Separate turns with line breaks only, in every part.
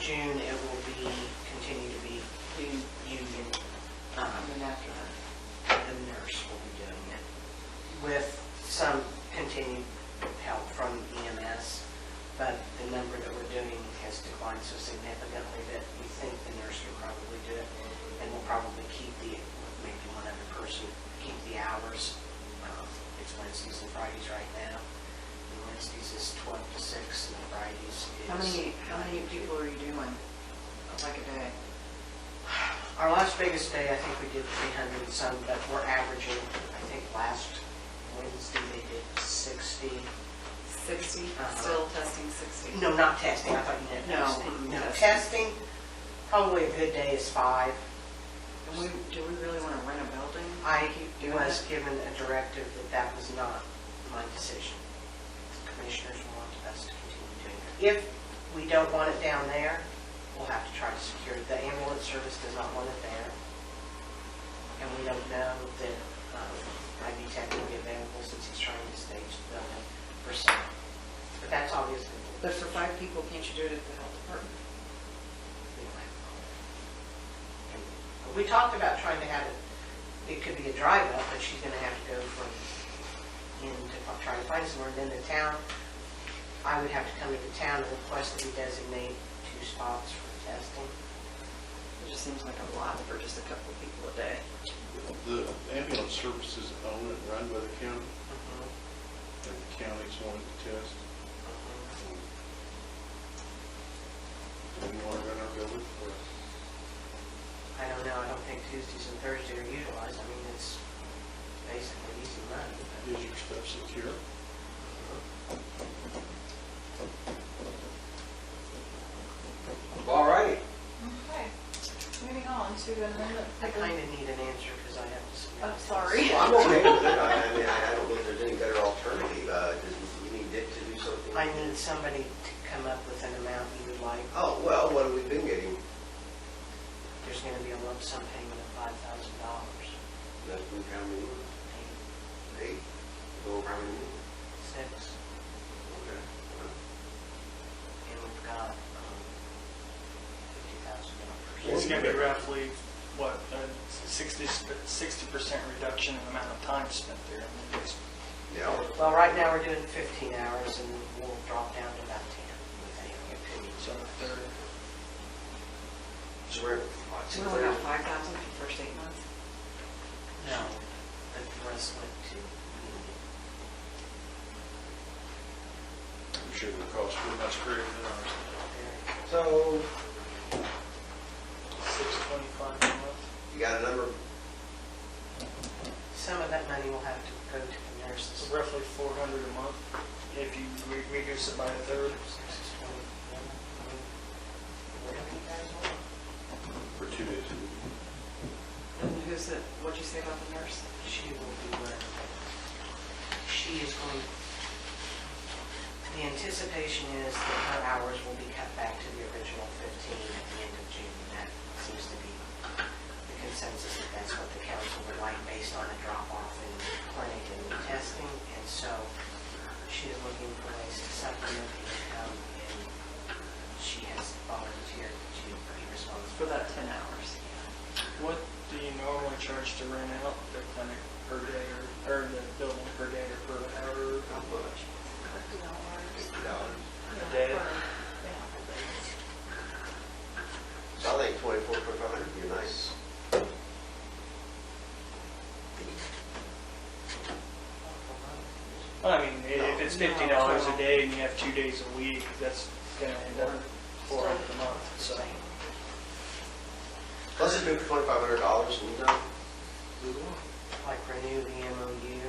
June, it will be, continue to be u- union. Um, And after that, the nurse will be doing it with some continued help from EMS. But the number that we're doing has declined so significantly that we think the nurse will probably do it. And we'll probably keep the, with maybe one other person, keep the hours. Um, It's Wednesdays and Fridays right now. And Wednesdays is 12 to 6 and Fridays is...
How many, how many people are you doing, like a day?
Our last biggest day, I think we did 300 and some, but we're averaging, I think last Wednesday they did 60.
60,
Uh-huh.
still testing 60?
No, not testing, I thought you meant
No,
testing. No,
testing.
testing, probably a good day is five.
And we, do we really want to rent a building?
I
Keep doing
was
it?
given a directive that that was not my decision. The Commissioners want us to continue doing it. If we don't want it down there, we'll have to try to secure it. The ambulance service does not want it there. And we don't know that um, IV tech will be available since he's trying to stage the building for sale. But that's obviously.
But for five people, can't you do it at the health department?
We talked about trying to have it, it could be a drive up, but she's gonna have to go from in to fi- try to find somewhere, then the town, I would have to come to the town and request that we designate two spots for testing.
It just seems like a lot for just a couple of people a day.
The ambulance services own and run by the county,
Mm-hmm,
and the county's wanting to test. Do we want to run our building for us?
I don't know, I don't think Tuesdays and Thursdays are utilized, I mean, it's basically easy money, but.
Is your stuff secure?
All right.
Okay, moving on to amendment.
I kinda need an answer, because I have to. submit
Mm-hmm. I'm
this.
sorry.
Well, I'm okay with it. I I mean, I I don't believe there's any better alternative. Uh, does- You need Dick to do something?
I need somebody to come up with an amount you would like
Oh, well, what have we been getting?
there's going to be a lump sum payment of five thousand dollars,
That's been how many? Eight? Go over how many?
six,
Okay.
and we've got um, fifty thousand
It's
dollars.
gonna be roughly, what, a 60, 60% reduction in the amount of time spent there.
Yeah.
Well, right now, we're doing fifteen hours, and we'll drop down to about ten.
So they're,
So we're, what's
Do we only have 5,000 for the first eight months?
No, but the rest went to, union.
I'm sure the cost will be much greater than ours.
They're-
So,
625 a month.
you got a number?
some of that money will have to go to the nurses.
So roughly 400 a month if you re- reduce it by a third.
Six is twenty-one, I mean, whatever you guys want.
For two days.
And who's the, what'd you say about the nurse?
She will be where, she is going, the anticipation is that her hours will be cut back to the original 15 at the end of June. That seems to be the consensus, that that's what the council would like based on a drop-off in clinic and in testing. And so she is looking for ways to supplement the income, and she has volunteered to be
For
responsible.
about 10 hours.
What do you normally charge to rent out the clinic per day or, or the building per day or per hour?
How much? Fifty dollars.
A day?
So I think twenty-four, twenty-five hundred would be a nice.
Well, I mean, i- if it's
No.
$50 a day and you have two days a week, that's gonna end up 400 a month, so.
Let's just do it for twenty-five hundred dollars and we're done. Move on.
Like renew the MOU.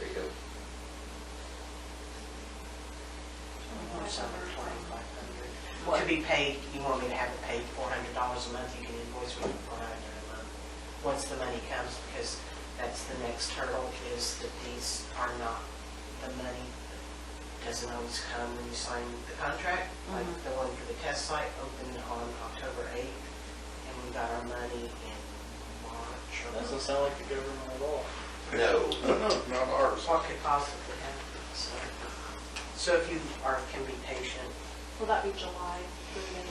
There you go.
To be paid, you want me to have it paid four hundred dollars a month, you can invoice me for four hundred a month. Once the money comes, because that's the next hurdle, is that these are not, the money doesn't always come when you sign the contract. Like
Mhm.
the one for the test site opened on October eighth, and we got our money in March or.
Doesn't sound like the government at all.
No.
Not ours.
What could possibly happen, so. So if you are, can be patient,
Will that be July, the beginning of